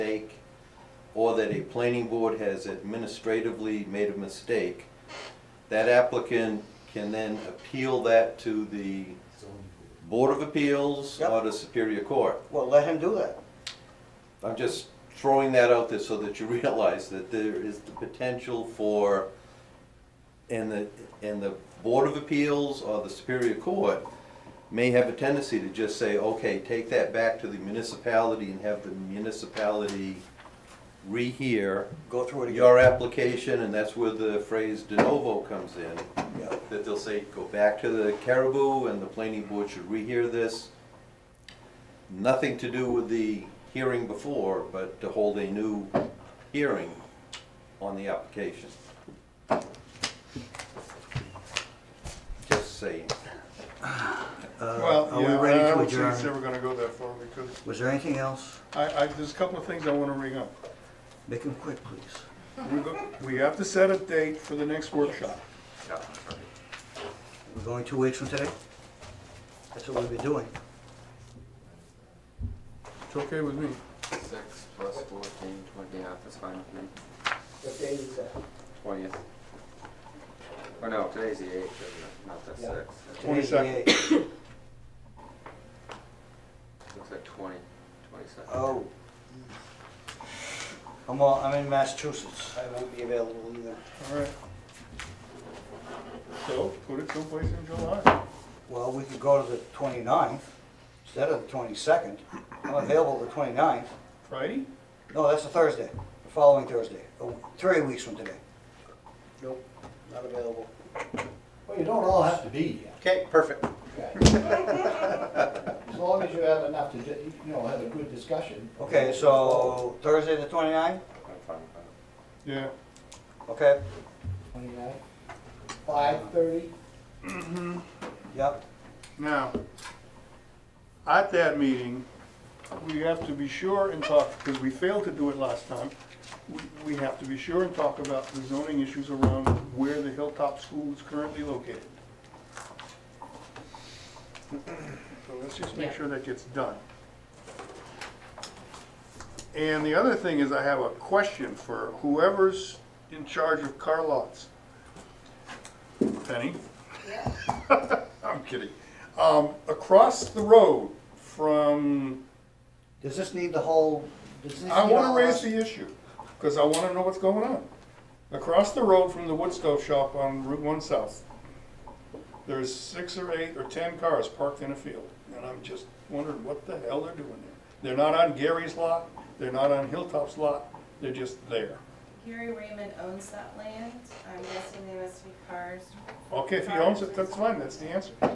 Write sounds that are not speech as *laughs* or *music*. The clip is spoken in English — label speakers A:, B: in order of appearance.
A: or that a planning board has administratively made a mistake, that applicant can then appeal that to the Board of Appeals or
B: Yep.
A: the Superior Court.
B: Well, let him do that.
A: I'm just throwing that out there so that you *laughs* realize that there is the potential for, and the, and the Board of Appeals or the Superior Court may have a tendency to just say, okay, take that back to the municipality and have the municipality rehear
B: Go through it again.
A: your application, and that's where the phrase de novo comes in,
B: Yeah.
A: that they'll say, go back to the Caribou, and the planning board should rehear this. Nothing to do with the hearing before, but to hold a new hearing on the application. Just saying.
C: Well,
B: Uh, are we
C: yeah, uh,
B: ready to
C: I don't think
B: adjourn?
C: it's ever gonna go that far because
B: Was there anything else?
C: I, I, there's a couple of things I wanna bring up.
B: Make him quick, please.
C: We go- We have to set a date for the next workshop.
B: We're going two weeks from today? That's what we'll be doing.
C: It's okay with me.
D: Six plus fourteen, twenty, yeah, that's fine with me.
E: What day is that?
D: Twentieth. Oh, no, today's the eighth, isn't it? not the
E: Yeah.
D: sixth. It
B: Today's the
C: 22nd.
B: eighth.
D: Looks like twenty, twenty-second.
B: Oh. I'm, all- I'm in Massachusetts. I won't be available either.
C: All right. So, put it someplace in July.
B: Well, we could go to the 29th instead of the twenty-second. I'm available the 29th.
C: Friday?
B: No, that's a Thursday, the following Thursday, oh, three weeks from today.
E: Nope, not available.
F: Well, you don't all have to be here.
E: Okay, perfect.
F: As long as you have enough to, ju- you know, have a good discussion.
B: Okay, so Thursday the 29th,
D: I'm fine with that.
C: Yeah.
B: okay,
F: Twenty-nine, five thirty,
B: yep,
C: Now, at that meeting, we have to be sure and talk, because we failed to do it last time, we- we have to be sure and talk about the zoning issues around where the Hilltop School is currently located. So let's just make sure that gets done. And the other thing is I have a question for whoever's in charge of car lots. Penny? *laughs* I'm kidding. Um, across the road from,
B: does this need the whole, does this need
C: I wanna
B: all
C: raise
B: us?
C: the issue, cause I wanna know what's going on. Across the road from the wood stove shop on Route One South, there's six or eight or ten cars parked in a field, and I'm just wondering what the hell they're doing there. They're not on Gary's lot, they're not on Hilltop's lot, they're just there.
G: Gary Raymond owns that land. I'm guessing they must be cars
C: Okay, if he owns it, that's fine, that's the answer.